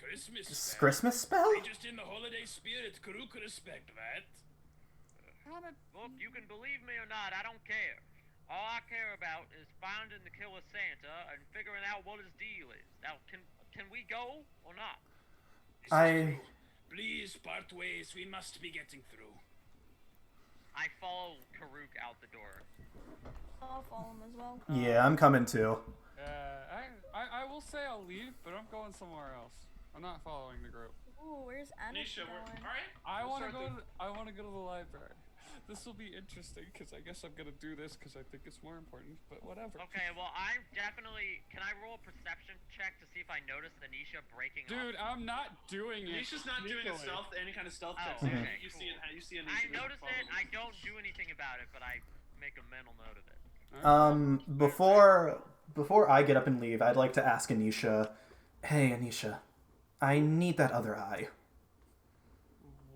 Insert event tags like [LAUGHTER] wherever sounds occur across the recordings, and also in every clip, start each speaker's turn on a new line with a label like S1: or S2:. S1: Christmas
S2: S-
S1: spell.
S2: Christmas spell?
S1: They just in the holiday spirit, Karuk respect that.
S3: Look, you can believe me or not, I don't care. All I care about is finding the killer Santa and figuring out what his deal is. Now, can can we go or not?
S1: This is
S2: I
S1: true. Please part ways, we must be getting through.
S3: I follow Karuk out the door.
S4: I'll follow him as well.
S2: yeah, I'm coming too.
S5: Uh, I, I, I will say I'll leave, but I'm going somewhere else. I'm not following the group.
S4: Ooh, where's Anisha
S6: Nisha,
S4: going?
S6: we're alright.
S5: I
S6: We'll
S5: want to
S6: start
S5: go.
S6: the-
S5: To, I want to go to the library. [LAUGHS] This will be interesting because I guess I'm gonna do this because I think it's more important. But whatever.
S3: Okay, well, I'm definitely. Can I roll a perception check to see if I notice Anisha breaking
S5: Dude,
S3: up?
S5: I'm not doing it.
S6: Nisha's not doing a
S5: sneakily.
S6: stealth, any kind of stealth
S3: Oh,
S6: check.
S3: okay,
S6: you, you
S3: cool.
S6: see, it- you see Anisha.
S3: I
S6: being
S3: notice it.
S6: followed.
S3: I don't do anything about it, but I make a mental note of it.
S2: Um, before before I get up and leave, I'd like to ask Anisha. Hey, Anisha, I need that other eye.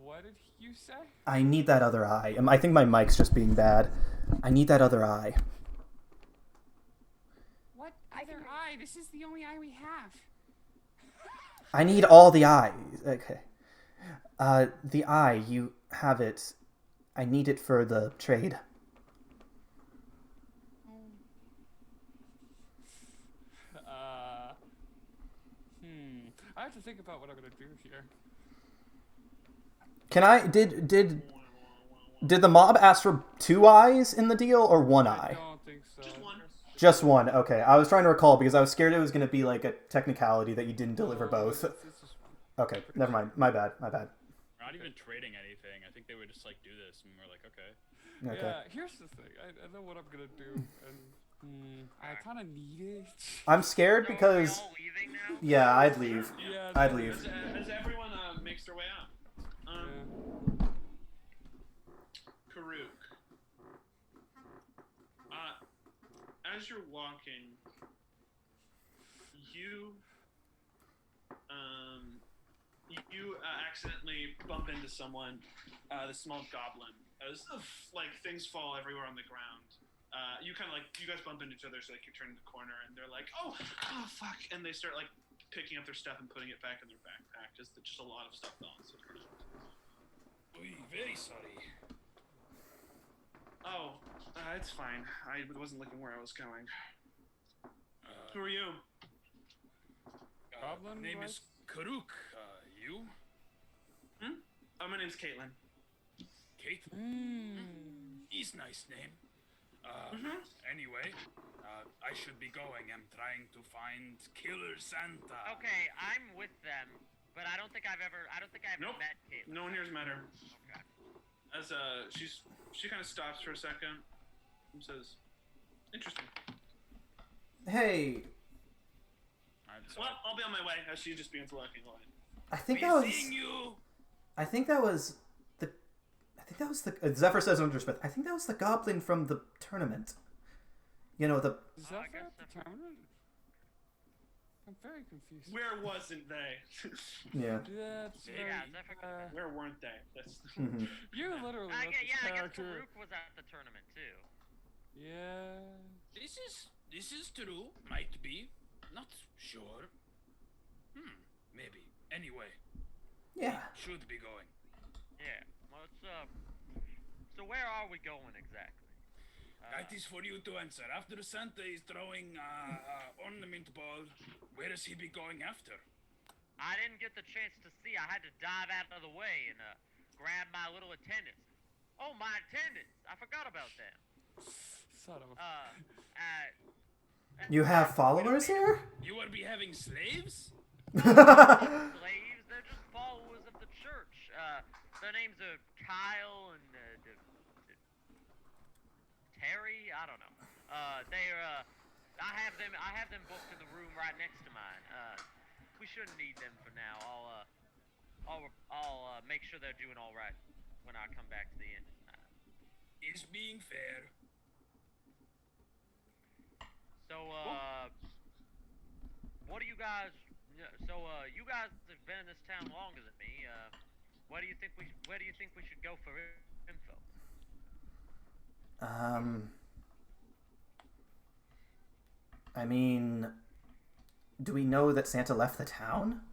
S5: What did you say?
S2: I need that other eye. Um, I think my mic's just being bad. I need that other eye.
S5: What
S4: I can other
S5: eye? This is the only eye we have.
S2: I need all the eyes. Okay. Uh, the eye, you have it. I need it for the trade.
S5: Uh. Hmm. I have to think about what I'm gonna do here.
S2: Can I did did did the mob ask for two eyes in the deal or one
S5: I
S2: eye?
S5: don't think so.
S6: Just one.
S2: Just one. Okay. I was trying to recall because I was scared it was going to be like a technicality that you didn't deliver
S5: No,
S2: both.
S5: it's- it's just one.
S2: Okay, never mind. My bad. My bad.
S1: We're not even trading anything. I think they would just like do this, and we're like, okay.
S2: Okay.
S5: Yeah, here's the thing. I, I know what I'm gonna do, and hmm,
S6: [LAUGHS]
S5: I kind of need it.
S2: I'm scared
S3: So
S2: because
S3: are we all leaving now?
S2: yeah, I'd leave.
S5: Yeah,
S2: I'd
S5: no,
S2: leave.
S6: As, as everyone uh, makes their way out, um,
S5: yeah.
S6: Karuk. Uh, as you're walking, you um, you uh, accidentally bump into someone, uh, the small goblin. As like things fall everywhere on the ground, uh, you kind of like you guys bump into each other, so like you turn the corner and they're like, "Oh, oh, fuck!" and they start like picking up their stuff and putting it back in their backpack. Just just a lot of stuff falls. to the ground.
S1: Oy, very sorry.
S6: Oh, uh, it's fine. I wasn't looking where I was going.
S1: Uh,
S6: Who are you?
S1: uh,
S5: Goblin
S1: name is
S5: was-
S1: Karuk. Uh, you?
S6: Oh, my name's Caitlin.
S1: Kate?
S5: Mm.
S1: He's nice name. Uh,
S6: Mhm.
S1: Anyway, uh, I should be going. I'm trying to find Killer Santa.
S3: Okay, I'm with them, but I don't think I've ever. I don't think I've
S6: Nope.
S3: met Caitlin.
S6: No one here's met her.
S3: Okay.
S6: As uh, she's she kind of stops for a second and says, "Interesting."
S2: Hey,
S1: I'm sorry.
S6: Well, I'll be on my way. As she just begins walking away.
S2: I think
S1: Be
S2: that was
S1: seeing you.
S2: I think that was the I think that was the uh, Zephyr says under Smith. I think that was the goblin from the tournament. You know the
S5: Is
S3: Oh, I
S5: that for
S3: guess so.
S5: determinant? I'm very confused.
S6: Where wasn't they? [LAUGHS]
S2: yeah.
S5: That's
S1: Yeah,
S5: very,
S3: Yeah, is that for
S5: uh,
S6: Where weren't they? That's
S2: [LAUGHS] Mhm.
S5: you literally
S3: I
S5: wrote
S3: guess,
S5: this
S3: yeah, I guess
S5: character.
S3: Karuk was at the tournament too.
S5: Yeah.
S1: This is this is true. Might be. Not sure. Hmm. Maybe. Anyway,
S2: Yeah.
S1: should be going.
S3: Yeah. Well, it's, uh, so where are we going exactly? Uh,
S1: That is for you to answer. After Santa is throwing uh, uh, ornament ball, where is he be going after?
S3: I didn't get the chance to see. I had to dive out of the way and uh, grab my little attendants. Oh, my attendants! I forgot about them.
S5: Son of a.
S3: Uh, uh,
S2: You have followers here?
S1: You will be having slaves?
S2: [LAUGHS] Wait,
S3: slaves. They're just followers of the church. Uh, their names are Kyle and uh, d- d- Terry. I don't know. Uh, they're. Uh, I have them. I have them booked in the room right next to mine. Uh, we shouldn't need them for now. I'll. Uh, I'll. I'll uh, make sure they're doing all right when I come back to the end. tonight.
S1: Is being fair.
S3: So, uh, what do you guys? So, uh, you guys have been in this town longer than me. Uh, where do you think we? Where do you think we should go for info?
S2: Um I mean do we know that Santa left the town?